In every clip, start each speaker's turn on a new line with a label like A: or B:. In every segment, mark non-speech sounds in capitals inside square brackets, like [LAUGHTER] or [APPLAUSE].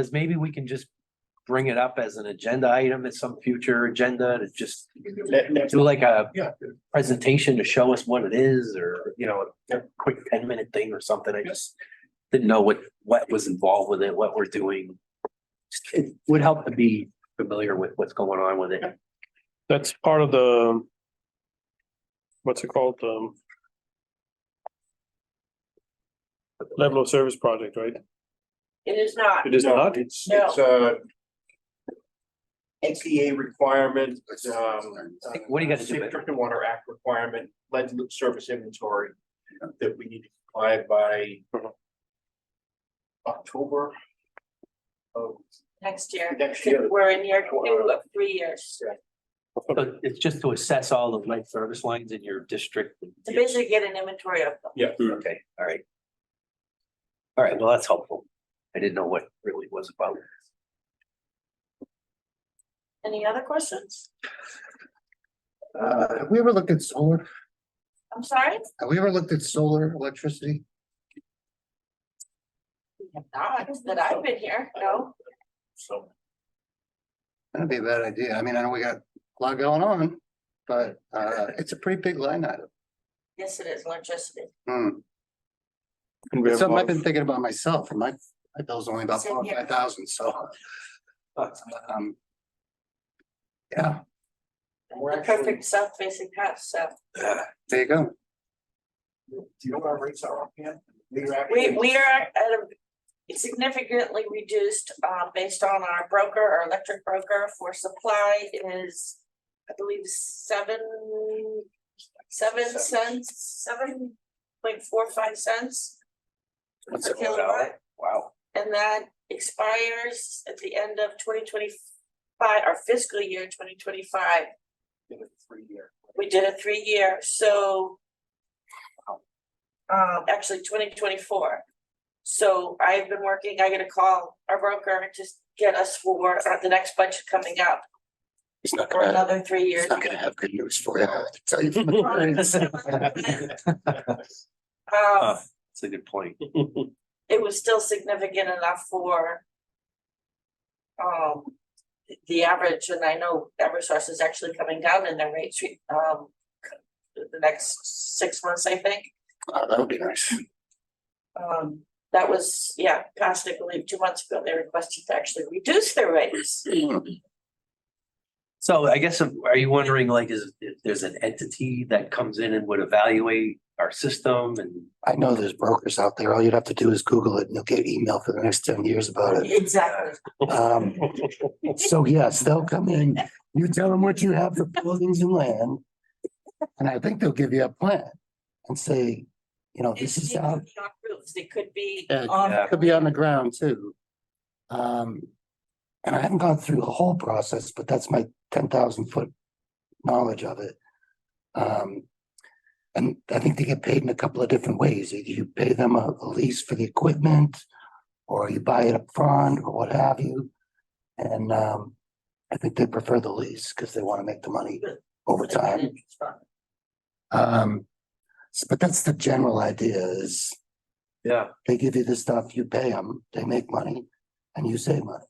A: Cause maybe we can just bring it up as an agenda item at some future agenda to just
B: Let- let-
A: do like a
B: Yeah.
A: presentation to show us what it is or, you know, a quick ten minute thing or something. I just didn't know what, what was involved with it, what we're doing. Just- It would help to be familiar with what's going on with it.
C: That's part of the. What's it called? Um. Level of service project, right?
D: It is not.
C: It is
B: No,
C: not.
B: It's, it's uh, a. NCA requirement, um.
A: What do you gotta do,
B: Safe
A: Ben?
B: Drinking Water Act requirement, lead service inventory that we need to comply by. October. Of
D: Next year.
B: next year.
D: We're in year two of three years
A: So It's just to assess all of life service lines in your district.
D: to basically get an inventory of them.
B: Yeah.
A: Okay, all right. All right, well, that's helpful. I didn't know what really was about.
D: Any other questions?
E: Uh, have we ever looked at solar?
D: I'm sorry?
E: Have we ever looked at solar electricity?
D: We have Not that I've been here, no.
B: So.
E: That'd be a bad idea. I mean, I know we got a lot going on, but uh, it's a pretty big line item.
D: Yes, it is electricity.
E: Hmm.
C: And we
E: It's
C: have a
E: Something I've
C: lot
E: been
C: of-
E: thinking about myself, and my, my bill's only about
D: Same
E: four,
D: here.
E: five thousand, so. but, um, Yeah,
B: We're
D: The
B: actually,
D: perfect south facing house, so
E: there you go.
B: do you know what our rates are up yet?
D: we we are at a significantly reduced um based on our broker, our electric broker for supply is I believe seven, seven cents, seven point four five cents.
A: What's
D: per
A: it all
D: kilowatt.
A: about? Wow.
D: And that expires at the end of twenty twenty five, our fiscal year twenty twenty five.
B: Three year.
D: We did a three year, so. Um, actually twenty twenty four. So I've been working, I gotta call our broker to s- get us for uh, the next budget coming up
E: He's not
D: for another three years. [LAUGHS]
E: [LAUGHS] he's not gonna have good news for you, I have to tell you.
C: [LAUGHS]
A: That's
D: Um,
A: a good point.
D: it was still significant enough for. Um, the average, and I know Eversource is actually coming down in their rates, re- um. The next six months, I think,
E: Wow, That would be nice.
D: um, that was, yeah, past, I believe, two months ago, they requested to actually reduce their rates.
A: So I guess, um, are you wondering like, is, if there's an entity that comes in and would evaluate our system and?
E: I know there's brokers out there. All you'd have to do is Google it and you'll get email for the next ten years about it.
D: Exactly.
E: Um, So yes, they'll come in, you tell them what you have for buildings and land. And I think they'll give you a plan and say, you know, this is
D: They
E: how,
D: could be on roofs, they could be
E: Yeah,
D: on.
E: could be on the ground too. Um, and I haven't gone through the whole process, but that's my ten thousand foot knowledge of it. Um, and I think they get paid in a couple of different ways. Either you pay them a a lease for the equipment or you buy it up front, or what have you. And um, I think they prefer the lease because they want to make the money over time. Um, s- but that's the general idea is
A: Yeah,
E: they give you the stuff, you pay them, they make money, and you save money.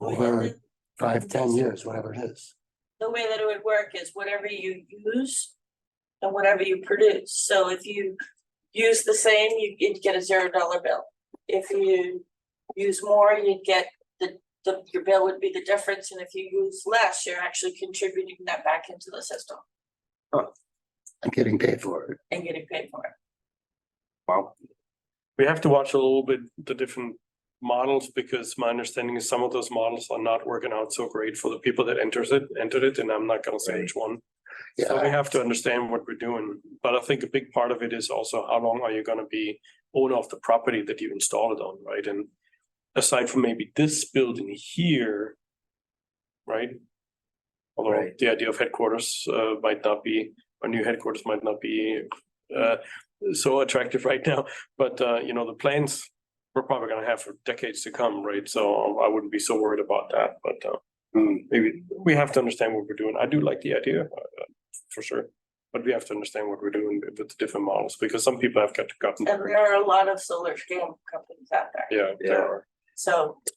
E: Over five, ten years, whatever it is.
D: the way that it would work is whatever you use and whatever you produce. So if you use the same, you- you'd get a zero dollar bill. If you use more, you'd get the, the, your bill would be the difference. And if you use less, you're actually contributing that back into the system
E: I'm getting paid for it.
D: and getting paid for it.
A: wow.
C: [LAUGHS] We have to watch a little bit the different models because my understanding is some of those models are not working out so great for the people that enters it, entered it, and I'm not gonna say which one. So we
E: Yeah,
C: have to understand what we're doing, but I think a big part of it is also how long are you gonna be owner of the property that you installed it on, right? And aside from maybe this building here, right? Although
A: Right.
C: the idea of headquarters uh might not be, our new headquarters might not be uh so attractive right now, but uh you know, the plans we're probably gonna have for decades to come, right? So I wouldn't be so worried about that, but uh
E: Mm.
C: maybe we have to understand what we're doing. I do like the idea uh, for sure. But we have to understand what we're doing with the different models because some people have got to gotten.
D: And there are a lot of solar scale companies out there.
C: Yeah,
A: Yeah.
C: there are.
D: so.